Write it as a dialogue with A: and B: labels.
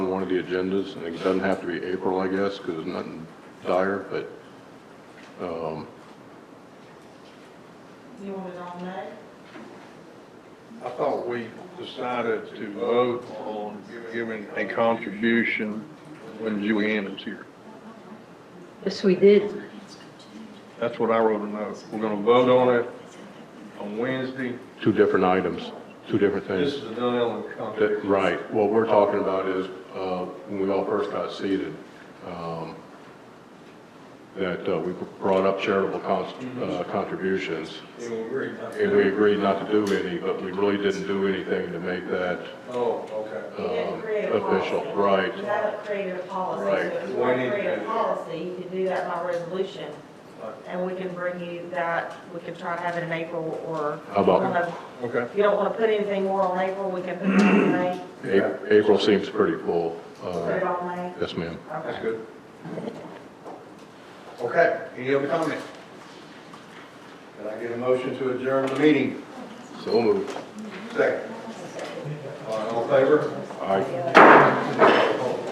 A: the agendas, and it doesn't have to be April, I guess, because it's nothing dire, but, um,
B: You want it on May?
C: I thought we decided to vote on giving a contribution when Julianne is here.
D: Yes, we did.
C: That's what I wrote a note. We're gonna vote on it on Wednesday.
A: two different items, two different
C: This
A: things.
C: is the Dunellen
A: That-
C: contribution.
A: Right, what we're talking about is, uh, when we all first got seated, um, that uh, we brought up charitable cons- uh, contributions,
C: And we agreed not to
A: and
C: do
A: we
C: it.
A: agreed not to do any, but we really didn't do anything to make that
C: Oh, okay.
B: You didn't
A: um,
B: create a
A: official.
B: policy.
A: Right,
B: You haven't created a policy.
A: Right.
B: So if you
C: We
B: want
C: need
B: to
C: to
B: create a
C: do that.
B: policy, you can do that by resolution.
C: Right.
B: And we can bring you that, we can try to have it in April or.
A: How about-
C: Okay.
B: If you don't want to put anything more on April, we can put it on May,
A: A- April seems pretty full.
B: put it
A: Uh,
B: on May.
A: Yes, ma'am.
C: That's good. Okay, any other comment? Can I get a motion to adjourn the meeting?
A: So moved.
C: Second. All right, All in favor?
A: Aye.